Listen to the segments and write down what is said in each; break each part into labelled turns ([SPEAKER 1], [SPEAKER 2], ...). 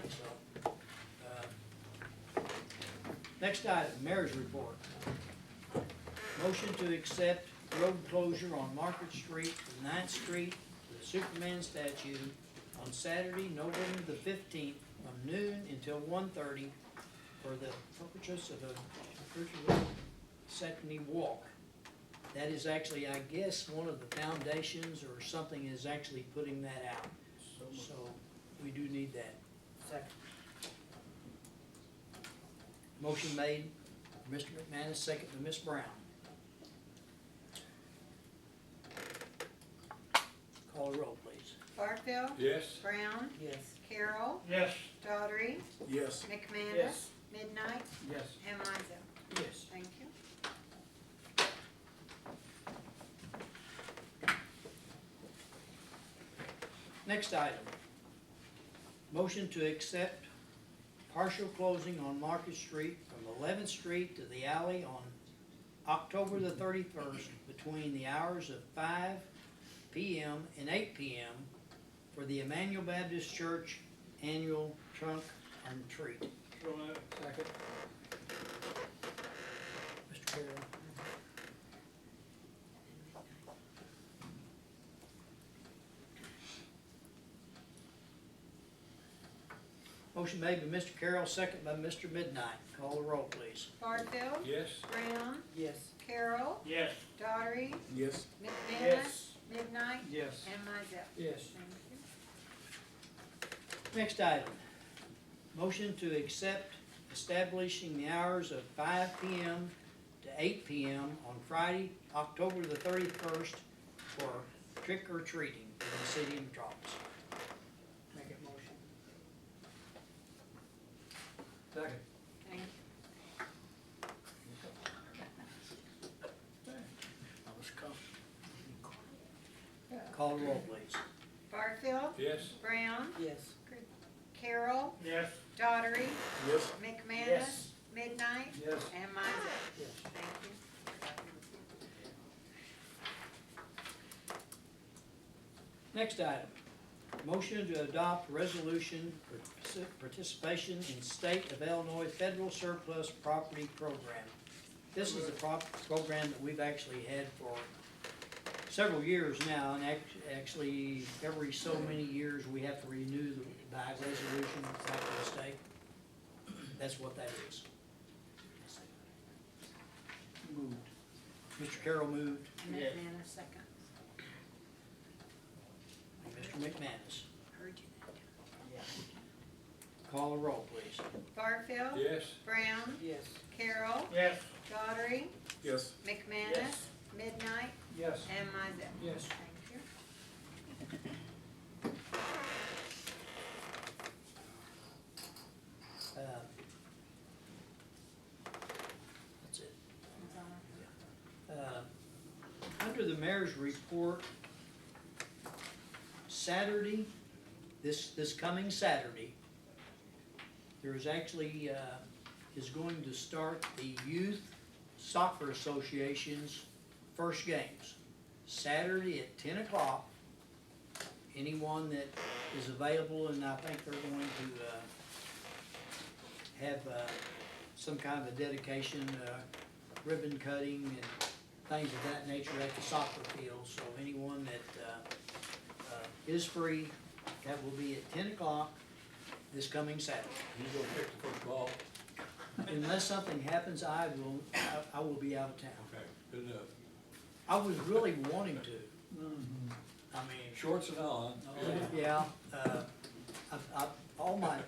[SPEAKER 1] so. uh, Next item, mayor's report. Motion to accept road closure on Market Street, from Ninth Street, to the Superman statue on Saturday, November the fifteenth, from noon until 1:30 for the purpose of a virtual Saturday walk. That is actually, I guess, one of the foundations or something is actually putting that out. So we do need that.
[SPEAKER 2] Second.
[SPEAKER 1] Motion made, Mr. McManus, second to Ms. Brown. Call the roll, please.
[SPEAKER 3] Barfield,
[SPEAKER 4] Yes.
[SPEAKER 3] Brown,
[SPEAKER 2] Yes.
[SPEAKER 3] Carroll,
[SPEAKER 4] Yes.
[SPEAKER 3] Daughtry,
[SPEAKER 4] Yes.
[SPEAKER 3] McManus, Midnight,
[SPEAKER 4] Yes.
[SPEAKER 3] and Mizel.
[SPEAKER 1] Yes.
[SPEAKER 3] Thank you.
[SPEAKER 1] Next item. Motion to accept partial closing on Market Street from Eleventh Street to the alley on October the thirty-first between the hours of five PM and eight PM for the Emmanuel Baptist Church Annual Trunk and Treat.
[SPEAKER 4] Second.
[SPEAKER 1] Mr. Carroll, motion made by Mr. Carroll, second by Mr. Midnight. Call the roll, please.
[SPEAKER 3] Barfield,
[SPEAKER 4] Yes.
[SPEAKER 3] Brown,
[SPEAKER 2] Yes.
[SPEAKER 3] Carroll,
[SPEAKER 4] Yes.
[SPEAKER 3] Daughtry,
[SPEAKER 4] Yes.
[SPEAKER 3] McManus, Midnight,
[SPEAKER 4] Yes.
[SPEAKER 3] and Mizel.
[SPEAKER 1] Yes.
[SPEAKER 3] Thank you.
[SPEAKER 1] Next item, motion to accept establishing the hours of five P M. to eight P M. on Friday, October the thirty-first for trick or treating in the city of Metropolis.
[SPEAKER 2] Make a motion.
[SPEAKER 4] Second.
[SPEAKER 3] Thank you.
[SPEAKER 4] I was confident.
[SPEAKER 1] Call the roll, please.
[SPEAKER 3] Barfield,
[SPEAKER 4] Yes.
[SPEAKER 3] Brown,
[SPEAKER 2] Yes.
[SPEAKER 3] Carroll,
[SPEAKER 4] Yes.
[SPEAKER 3] Daughtry,
[SPEAKER 4] Yes.
[SPEAKER 3] McManus, Midnight,
[SPEAKER 4] Yes.
[SPEAKER 3] and Mizel.
[SPEAKER 2] Yes.
[SPEAKER 3] Thank you.
[SPEAKER 1] Next item, motion to adopt resolution for partic- participation in state of Illinois federal surplus property program. This is a prop, program that we've actually had for several years now, and act- actually, every so many years, we have to renew the, by resolution back to the state. That's what that is.
[SPEAKER 4] Moved.
[SPEAKER 1] Mr. Carroll moved,
[SPEAKER 3] And
[SPEAKER 4] Yes.
[SPEAKER 3] McManus, second.
[SPEAKER 1] and Mr. McManus.
[SPEAKER 3] Heard you that time.
[SPEAKER 1] Call the roll, please.
[SPEAKER 3] Barfield,
[SPEAKER 4] Yes.
[SPEAKER 3] Brown,
[SPEAKER 2] Yes.
[SPEAKER 3] Carroll,
[SPEAKER 4] Yes.
[SPEAKER 3] Daughtry,
[SPEAKER 4] Yes.
[SPEAKER 3] McManus, Midnight,
[SPEAKER 4] Yes.
[SPEAKER 3] and Mizel.
[SPEAKER 4] Yes.
[SPEAKER 3] Thank you.
[SPEAKER 1] Uh, That's it.
[SPEAKER 3] That's all.
[SPEAKER 1] Uh, Under the mayor's report, Saturday, this, this coming Saturday, there is actually, uh, is going to start the Youth Soccer Association's first games. Saturday at ten o'clock. Anyone that is available, and I think they're going to, uh, have, uh, some kind of a dedication, uh, ribbon cutting and things of that nature at the soccer field, so anyone that, uh, uh, is free, that will be at ten o'clock this coming Saturday.
[SPEAKER 4] You gonna pick the football?
[SPEAKER 1] Unless something happens, I will, I, I will be out of town.
[SPEAKER 4] Okay, good enough.
[SPEAKER 1] I was really wanting to. I mean,
[SPEAKER 4] Shorts and all, huh?
[SPEAKER 1] yeah, uh, I, I, all my,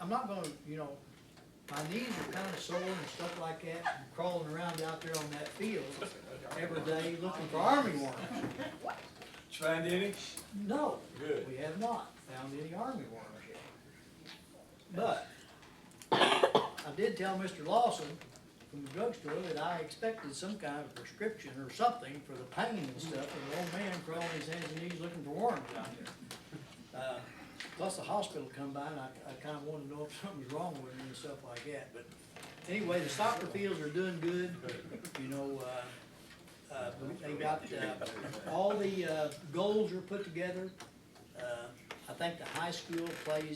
[SPEAKER 1] I'm not gonna, you know, my knees are kinda sore and stuff like that, from crawling around out there on that field every day looking for army worms.
[SPEAKER 4] Find any?
[SPEAKER 1] No,
[SPEAKER 4] Good.
[SPEAKER 1] we have not found any army worms yet. But I did tell Mr. Lawson from the drugstore that I expected some kind of prescription or something for the pain and stuff, and the old man crawling his hands and knees looking for worms out there. Uh, Plus the hospital come by and I, I kinda wanted to know if something was wrong with me and stuff like that, but anyway, the soccer fields are doing good, you know, uh, uh, they got, uh, all the, uh, goals are put together. Uh, I think the high school plays